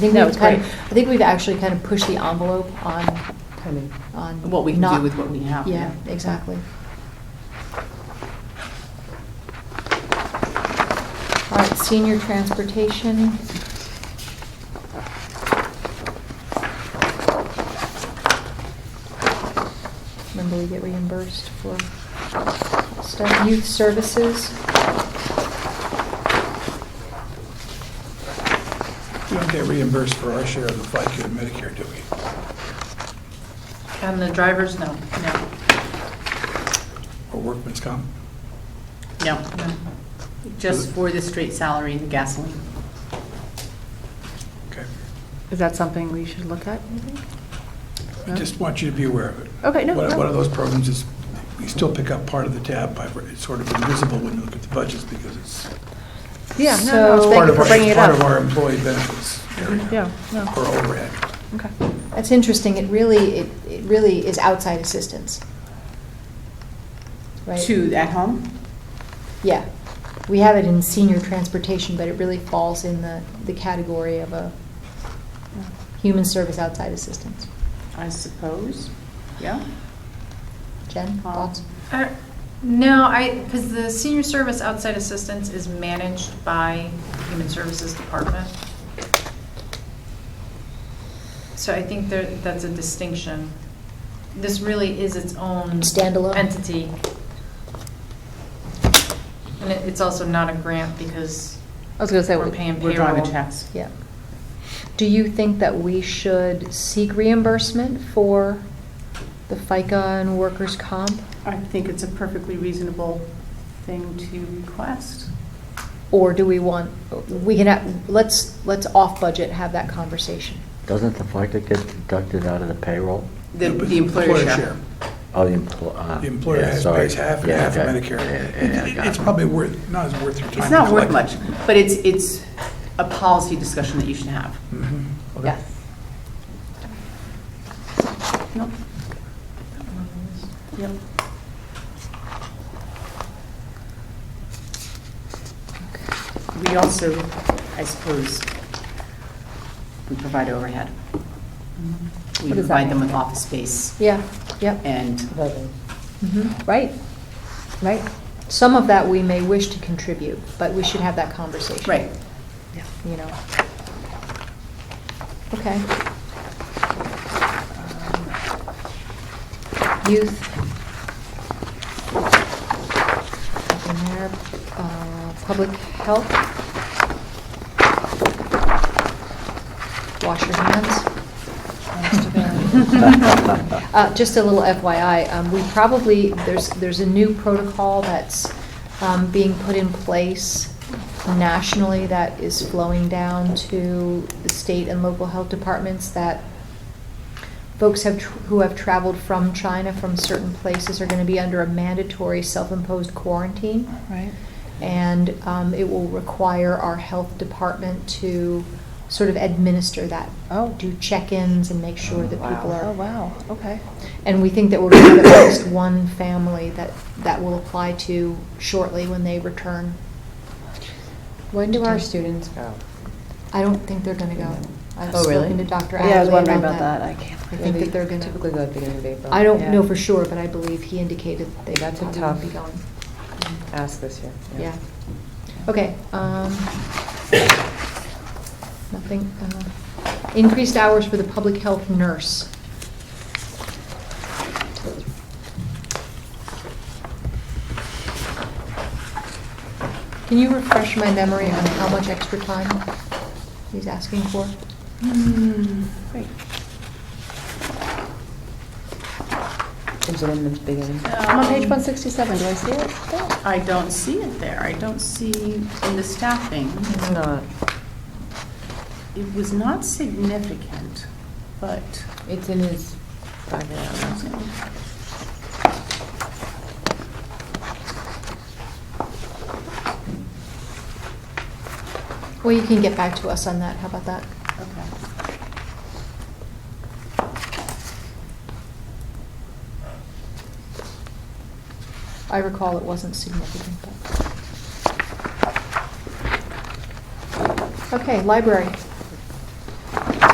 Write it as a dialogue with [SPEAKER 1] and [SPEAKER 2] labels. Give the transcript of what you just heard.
[SPEAKER 1] think
[SPEAKER 2] that
[SPEAKER 1] we've
[SPEAKER 2] was
[SPEAKER 1] kind
[SPEAKER 2] great.
[SPEAKER 1] of- I think we've actually kind of pushed the envelope on,
[SPEAKER 2] kind of
[SPEAKER 1] on.
[SPEAKER 2] what we can do
[SPEAKER 1] not-
[SPEAKER 2] with what we have.
[SPEAKER 1] Yeah, exactly. All right, senior transportation. Remember, we get reimbursed for stuff, youth services.
[SPEAKER 3] We don't get reimbursed for our share of the FICA and Medicare, do we?
[SPEAKER 2] And the drivers, no, no,
[SPEAKER 3] Or workman's comp?
[SPEAKER 2] no, no. Just for the straight salary and gasoline.
[SPEAKER 3] Okay.
[SPEAKER 4] Is that something we should look at? you think?
[SPEAKER 3] I just want you to be aware of it.
[SPEAKER 4] Okay, no,
[SPEAKER 3] One
[SPEAKER 4] no.
[SPEAKER 3] one of those programs is, we still pick up part of the tab, by it's sort of invisible when you look at the budgets because it's
[SPEAKER 4] Yeah, no,
[SPEAKER 1] So-
[SPEAKER 4] no,
[SPEAKER 3] part
[SPEAKER 4] thank you
[SPEAKER 3] of
[SPEAKER 4] for
[SPEAKER 3] our,
[SPEAKER 4] bringing
[SPEAKER 3] it's
[SPEAKER 4] it
[SPEAKER 3] part of
[SPEAKER 4] up.
[SPEAKER 3] our employee benefits area
[SPEAKER 4] Yeah, no,
[SPEAKER 3] or overhead.
[SPEAKER 4] okay.
[SPEAKER 1] That's interesting, it really, it it really is outside assistance. Right?
[SPEAKER 2] Two at home?
[SPEAKER 1] Yeah, we have it in senior transportation, but it really falls in the, the category of a human service outside assistance.
[SPEAKER 2] I suppose, yeah.
[SPEAKER 1] Jen, thoughts?
[SPEAKER 5] Uh, No, I, because the senior service outside assistance is managed by Human Services Department. So I think there, that's a distinction. This really is its own.
[SPEAKER 1] Standalone?
[SPEAKER 5] Entity. And it- it's also not a grant because
[SPEAKER 4] I was gonna say,
[SPEAKER 5] we're
[SPEAKER 4] we-
[SPEAKER 5] paying payroll.
[SPEAKER 2] We're driving checks.
[SPEAKER 1] Yeah. Do you think that we should seek reimbursement for the FICA and workers' comp?
[SPEAKER 2] I think it's a perfectly reasonable thing to request.
[SPEAKER 1] Or do we want, we can, have- let's, let's off-budget have that conversation.
[SPEAKER 6] Doesn't the FICA get deducted out of the payroll?
[SPEAKER 2] The
[SPEAKER 3] But
[SPEAKER 2] the employer share.
[SPEAKER 6] Oh, the employer.
[SPEAKER 3] The employer has, pays half and half of Medicare. It- it- It's probably worth, not as worth your time.
[SPEAKER 2] It's not
[SPEAKER 3] to
[SPEAKER 2] worth much,
[SPEAKER 3] collect.
[SPEAKER 2] but it's, it's a policy discussion that you should have.
[SPEAKER 3] Mhm.
[SPEAKER 2] Yes. Nope. Yep. We also, I suppose, we provide overhead. We
[SPEAKER 4] What does that
[SPEAKER 2] provide them
[SPEAKER 4] mean?
[SPEAKER 2] with office space
[SPEAKER 1] Yeah, yep,
[SPEAKER 2] and
[SPEAKER 1] mhm,
[SPEAKER 4] right, right.
[SPEAKER 1] some of that we may wish to contribute, but we should have that conversation.
[SPEAKER 2] Right.
[SPEAKER 1] you know. Okay. Youth. Nothing there. Uh, Public health. Wash your hands. Uh, Just a little FYI, um, we probably, there's, there's a new protocol that's um, being put in place nationally that is flowing down to the state and local health departments that folks have, tr- who have traveled from China, from certain places, are going to be under a mandatory self-imposed quarantine.
[SPEAKER 4] Right.
[SPEAKER 1] And um, it will require our health department to sort of administer that.
[SPEAKER 4] Oh.
[SPEAKER 1] Do check-ins and make sure that people are
[SPEAKER 4] Oh, wow, okay.
[SPEAKER 1] and we think that we're going to have at least one family that, that will apply to shortly when they return.
[SPEAKER 7] When do our students go?
[SPEAKER 1] I don't think they're going to go. I've
[SPEAKER 7] Oh, really?
[SPEAKER 1] spoken to Dr.
[SPEAKER 7] Yeah, I was
[SPEAKER 1] Attlee
[SPEAKER 7] wondering
[SPEAKER 1] about
[SPEAKER 7] about that. I
[SPEAKER 1] that.
[SPEAKER 7] can't.
[SPEAKER 1] I think that they're gonna-
[SPEAKER 7] Typically go at the beginning of April.
[SPEAKER 1] I don't know
[SPEAKER 4] Yeah.
[SPEAKER 1] for sure, but I believe he indicated they
[SPEAKER 7] That's a
[SPEAKER 1] probably won't be
[SPEAKER 7] tough-
[SPEAKER 1] going.
[SPEAKER 7] Ask this year.
[SPEAKER 1] Yeah. Okay. um, Nothing. uh, Increased hours for the public health nurse. Can you refresh my memory on how much extra time he's asking for?
[SPEAKER 2] Hmm,
[SPEAKER 4] Great.
[SPEAKER 7] Is it in the beginning?
[SPEAKER 2] Um,
[SPEAKER 4] I'm on page 167, do I see it? Yeah.
[SPEAKER 2] I don't see it there. I don't see in the staffing.
[SPEAKER 7] It's not.
[SPEAKER 2] It was not significant, but.
[SPEAKER 7] It's in his five hours.
[SPEAKER 1] Well, you can get back to us on that. How about that?
[SPEAKER 2] Okay.
[SPEAKER 1] I recall it wasn't significant, but. Okay, library.